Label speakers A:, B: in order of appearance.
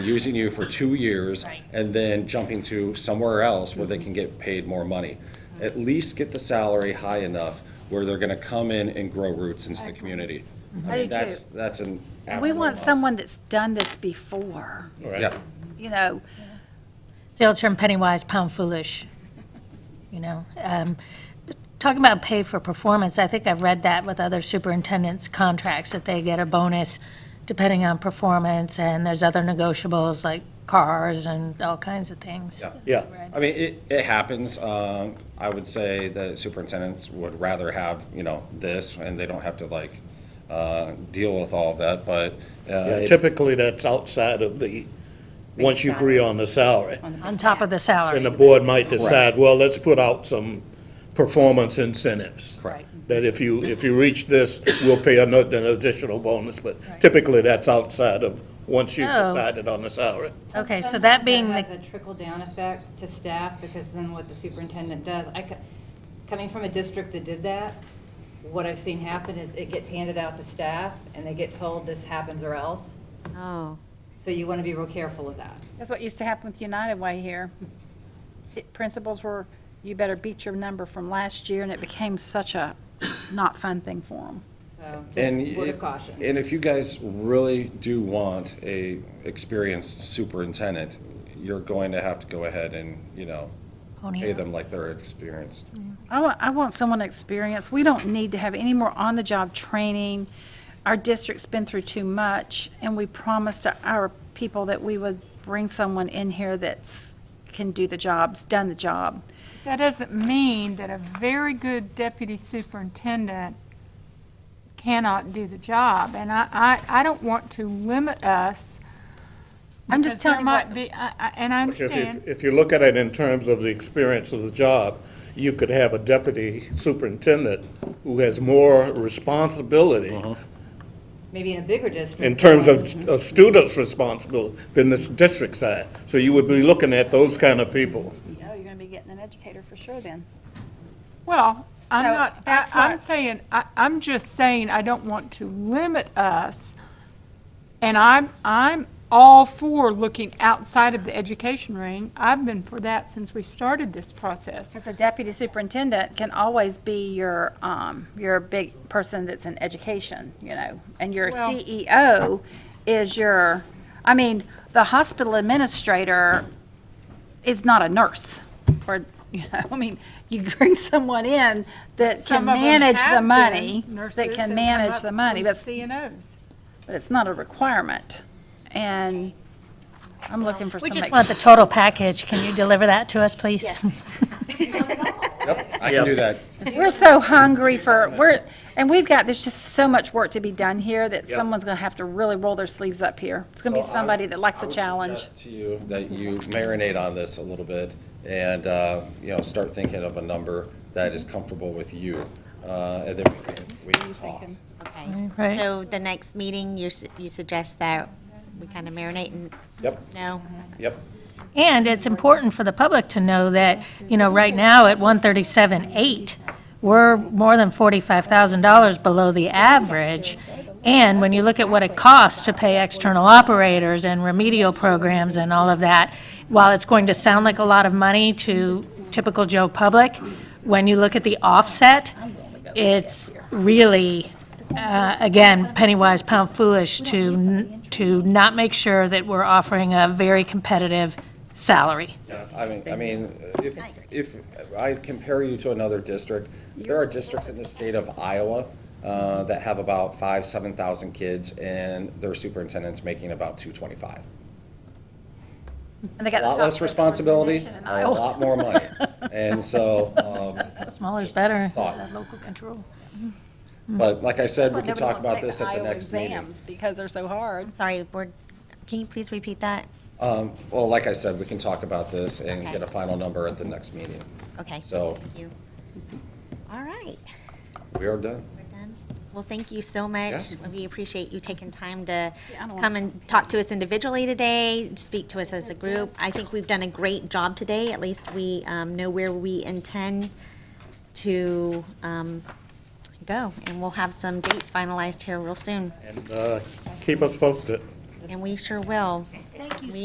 A: using you for two years
B: Right.
A: and then jumping to somewhere else where they can get paid more money.
C: Mm-hmm.
A: At least get the salary high enough where they're gonna come in and grow roots into the community. I
B: I do
A: mean,
B: too.
A: that's, that's an
C: Mm-hmm. We
A: absolute
C: want
A: must.
C: someone that's done this before,
A: Yeah,
C: you know,
D: The old term penny wise, pound foolish, you know. Um, Talking about pay for performance, I think I've read that with other superintendents' contracts, that they get a bonus depending on performance, and there's other negotiables like cars and all kinds of things.
A: yeah. I mean, it, it happens. Um, I would say that superintendents would rather have, you know, this and they don't have to like, uh, deal with all of that, but, uh,
E: Yeah,
A: it-
E: typically that's outside of the, once you agree on the salary.
D: On top of
E: And
D: the
E: the
D: salary,
E: board might decide, well, let's put out some performance incentives.
A: Correct.
E: That if you, if you reach this, we'll pay another, an additional bonus, but typically that's outside of, once you've
D: Oh.
E: decided on the salary.
D: okay, so
F: Sometimes
D: that being the
F: has a trickle-down effect to staff, because then what the superintendent does, I, co- coming from a district that did that, what I've seen happen is it gets handed out to staff, and they get told this happens or else.
G: Oh,
F: So you want to be real careful of that.
B: That's what used to happen with United Way here. The Principals were, you better beat your number from last year, and it became such a not fun thing for them.
F: So
A: And
F: just word
A: if-
F: of caution.
A: And if you guys really do want a experienced superintendent, you're going to have to go ahead and, you know,
D: pony
A: pay
D: up.
A: them like they're experienced.
B: I want, I want someone experienced. We don't need to have any more on-the-job training. Our district's been through too much, and we promised our people that we would bring someone in here that's, can do the jobs, done the job.
H: That doesn't mean that a very good deputy superintendent cannot do the job. And I, I, I don't want to limit us.
B: I'm just
H: because there
B: telling you what-
H: might be, I- I- and I
E: If you-
H: understand.
E: If you look at it in terms of the experience of the job, you could have a deputy superintendent who has more responsibility
F: Maybe in a bigger district.
E: in terms of a student's responsibility than this district side. So you would be looking at those kind of people.
B: Oh, you're gonna be getting an educator for sure then.
H: Well, I'm
B: So
H: not, I-
B: that's
H: I'm
B: what-
H: saying, I, I'm just saying I don't want to limit us. And I'm, I'm all for looking outside of the education ring. I've been for that since we started this process.
B: Because the deputy superintendent can always be your, um, your big person that's in education, you know, and your
H: Well-
B: CEO is your, I mean, the hospital administrator is not a nurse, or, you know, I mean, you bring someone in that can
H: Some of them
B: manage the
H: have
B: money,
H: been nurses
B: that
H: and
B: can
H: come
B: manage
H: up
B: the money,
H: from
B: but
H: CNOs.
B: but it's not a requirement, and I'm looking for
D: We
B: somebody.
D: just want the total package. Can you deliver that to us, please?
B: Mm-hmm.
A: I can do that.
B: We're so hungry for, we're, and we've got, there's just so much work to be done here that someone's gonna have to really roll their sleeves up here. It's gonna be
A: So I-
B: somebody that likes
A: I
B: a
A: would
B: challenge.
A: suggest to you that you marinate on this a little bit and, uh, you know, start thinking of a number that is comfortable with you. Uh, and then we can- we can talk.
D: Right.
G: okay. So the next meeting, you, s- you suggest that we kind of marinate and,
A: Yep,
G: no?
A: yep.
D: And it's important for the public to know that, you know, right now at 137.8, we're more than $45,000 below the average. And when you look at what it costs to pay external operators and remedial programs and all of that, while it's going to sound like a lot of money to typical Joe public, when you look at the offset, it's really, uh, again, penny wise, pound foolish to, n- to not make sure that we're offering a very competitive salary.
A: I mean, I mean, uh, if, if I compare you to another district, there are districts in the state of Iowa uh, that have about five, seven thousand kids, and their superintendent's making about two twenty-five.
B: And they got
A: A
B: the
A: lot
B: top
A: less
B: person in
A: responsibility,
B: the nation in
A: a
B: Iowa.
A: lot more money. And so, um,
D: Smaller's better,
A: Thought.
D: local control.
A: but like I said, we
B: Hmm. Nobody
A: could talk
B: wants to
A: about
B: take
A: this at the
B: Iowa
A: next meeting.
B: exams Because they're so hard.
G: I'm sorry, we can you please repeat that?
A: Well, like I said, we can talk about this and
G: Okay.
A: get a final number at the next meeting.
G: Okay.
A: So-
G: Thank you. All right,
A: We are done.
G: we're done. Well, thank you so much.
A: Yeah.
G: We appreciate you taking time to
B: Yeah, I don't
G: come and talk to us individually today, speak to us as a group. I think we've done a great job today. At least we um, know where we intend to um, go. And we'll have some dates finalized here real soon.
E: And uh, keep us posted.
G: And we sure will. Thank you